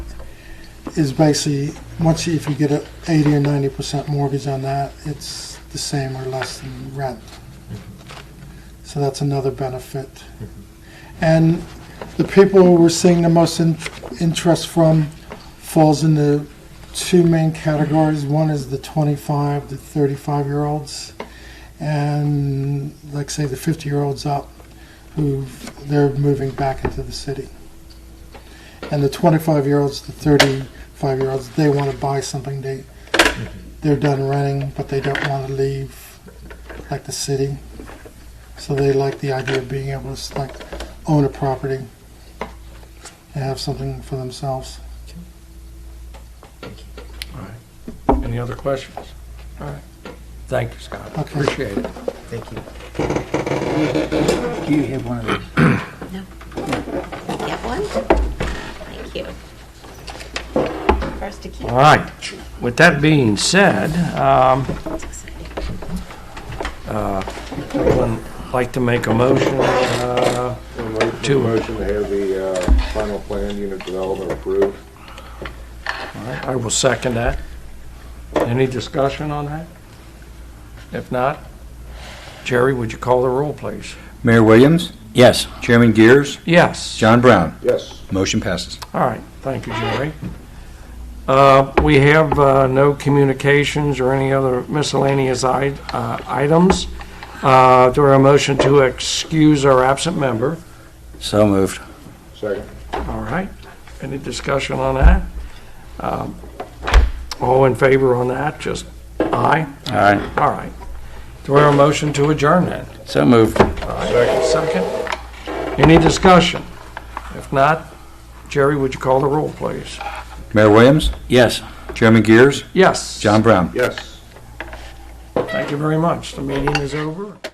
is basically, once, you- if you get a eighty or ninety percent mortgage on that, it's the same or less than rent. So that's another benefit. And the people we're seeing the most in- interest from falls into two main categories. One is the twenty-five to thirty-five-year-olds, and like, say, the fifty-year-olds up, who, they're moving back into the city and the 25 year olds the 35 year olds they want to buy something they they're done renting but they don't want to leave like the city so they like the idea of being able to s- like own a property and have something for themselves Any other questions? All right. Thank you, Scott. Okay. Appreciate it. Thank you. Do you have one of those? Get one? Thank you. First to keep. All right. With that being said, um, It's exciting. would like to make a motion, uh, Two. Two motion to have the uh, final plan unit development approved. all right, I will second that. Any discussion on that? If not, Jerry, would you call the roll, please? Mayor Williams? Yes. Chairman Gears? Yes. John Brown? Yes. Motion passes. All right, thank you, Jerry. Uh, We have uh, no communications or any other miscellaneous i- uh, items. Uh, Do I hear a motion to excuse our absent member? So moved. Second. All right, any discussion on that? Um, All in favor on that, just aye? All right. All right. Do I hear a motion to adjourn then? So moved. Second. Any discussion? If not, Jerry, would you call the roll, please? Mayor Williams? Yes. Chairman Gears? Yes. John Brown? Yes. Thank you very much. The meeting is over.